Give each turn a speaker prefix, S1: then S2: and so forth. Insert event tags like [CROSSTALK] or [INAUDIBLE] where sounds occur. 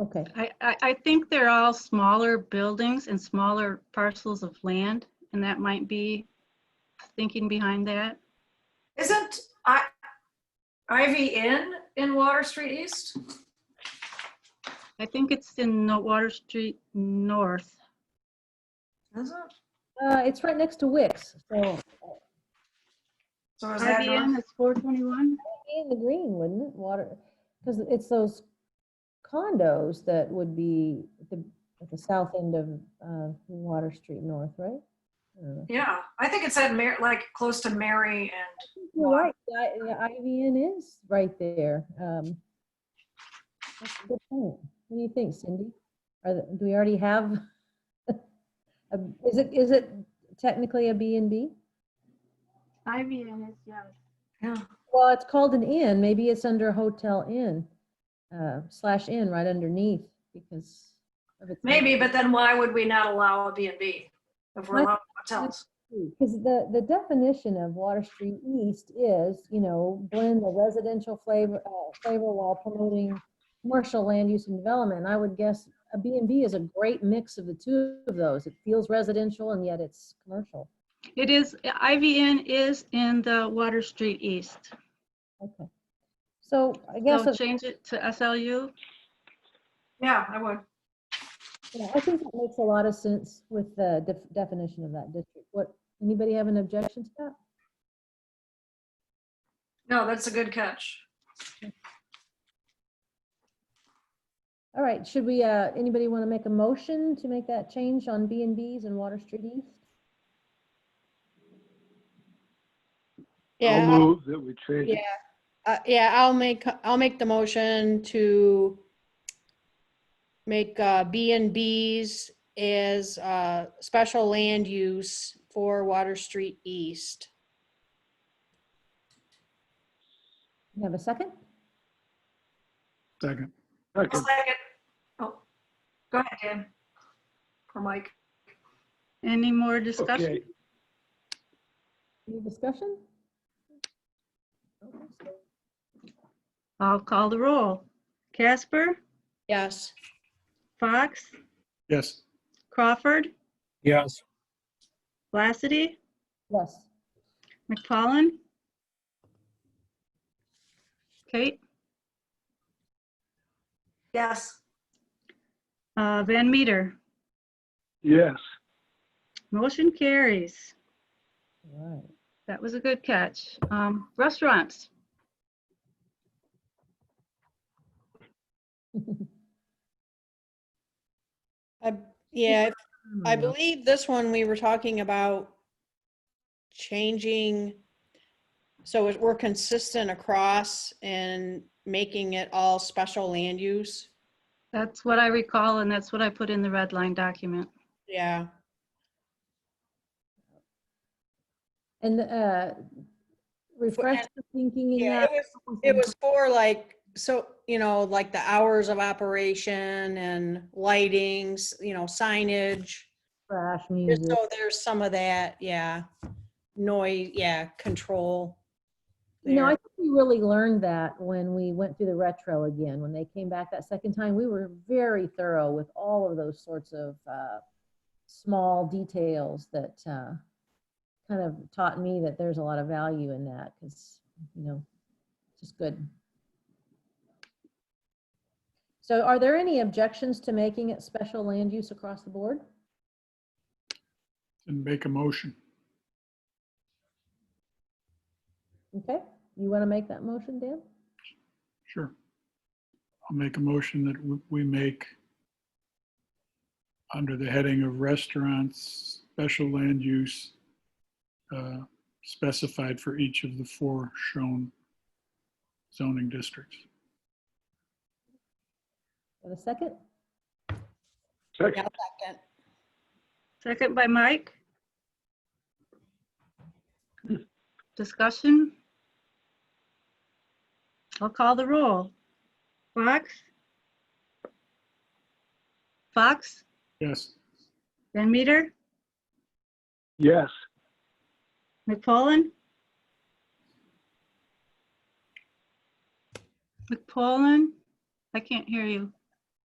S1: Okay,
S2: I, I, I think they're all smaller buildings and smaller parcels of land, and that might be thinking behind that.
S3: Isn't I, Ivy Inn in Water Street East?
S2: I think it's in No- Water Street North.
S3: Is it?
S1: uh, it's right next to Wix, so
S3: So is that
S2: IBM
S3: north?
S2: is 421.
S1: be in the green, wouldn't it? Water, because it's those condos that would be at the, at the south end of, uh, Water Street North, right? I don't know.
S3: Yeah, I think it's at Mar, like, close to Mary and,
S1: You're
S3: Well, I-
S1: right, I- yeah, Ivy Inn is right there. um, that's a good point. What do you think, Cindy? Are, the- do we already have? [LAUGHS] a- Is it, is it technically a B and B?
S2: IBM is, yeah.
S3: yeah.
S1: Well, it's called an inn. Maybe it's under hotel inn uh, slash inn right underneath because of its.
S3: Maybe, but then why would we not allow a B and B if we're allowing hotels?
S1: Because the, the definition of Water Street East is, you know, blend the residential flavor, uh, flavor while promoting commercial land use and development. And I would guess a B and B is a great mix of the two of those. It feels residential and yet it's commercial.
S2: It is, IBM is in the Water Street East.
S1: Okay. So I guess.
S2: So
S1: it's-
S2: change it to SLU.
S3: Yeah, I would.
S1: Yeah, I think that makes a lot of sense with the def- definition of that district. What, anybody have an objection to that?
S3: No, that's a good catch.
S1: All right, should we, uh, anybody want to make a motion to make that change on B and Bs and Water Street East?
S4: Yeah,
S5: I'll
S4: I'll-
S5: move that we change
S4: yeah,
S5: it.
S4: uh, yeah, I'll make, I'll make the motion to make uh, B and Bs as uh, special land use for Water Street East.
S1: You have a second?
S5: Second.
S3: I'll
S5: Second,
S3: second. Oh, Go ahead, Dan. Or Mike.
S2: Any more discussion?
S5: okay.
S1: Any discussion? Okay, so
S2: I'll call the roll. Casper,
S4: Yes.
S2: Fox,
S5: Yes.
S2: Crawford,
S5: Yes.
S2: Lassity,
S1: Yes,
S2: McFallen? Kate,
S3: Yes.
S2: uh, Van Meter,
S5: Yes.
S2: motion carries.
S1: all right.
S2: That was a good catch. Um, Restaurants,
S4: I- Yeah, I
S1: Hmm,
S4: believe this one we were talking about changing, so it- we're consistent across and making it all special land use.
S2: that's what I recall and that's what I put in the red line document.
S4: Yeah,
S1: And, uh, refresh the thinking in
S4: Yeah,
S1: that.
S4: it it was for like, so, you know, like the hours of operation and lightings, you know, signage.
S1: Trash
S4: There's-
S1: music.
S4: So there's some of that, yeah, noise, yeah, control.
S1: You know, I
S4: there.
S1: think we really learned that when we went through the retro again. When they came back that second time, we were very thorough with all of those sorts of uh, small details that uh, kind of taught me that there's a lot of value in that because, you know, it's just good. So, are there any objections to making it special land use across the board?
S5: And make a motion.
S1: Okay, you want to make that motion, Dan?
S5: Sure. I'll make a motion that w- we make under the heading of restaurants, special land use uh, specified for each of the four shown zoning districts.
S1: For a second?
S4: Yeah,
S5: Second.
S4: second.
S2: Second by Mike. Discussion? I'll call the roll. Fox? Fox,
S5: Yes.
S2: Van Meter,
S5: Yes.
S2: McPolin? McPolin? I can't hear you.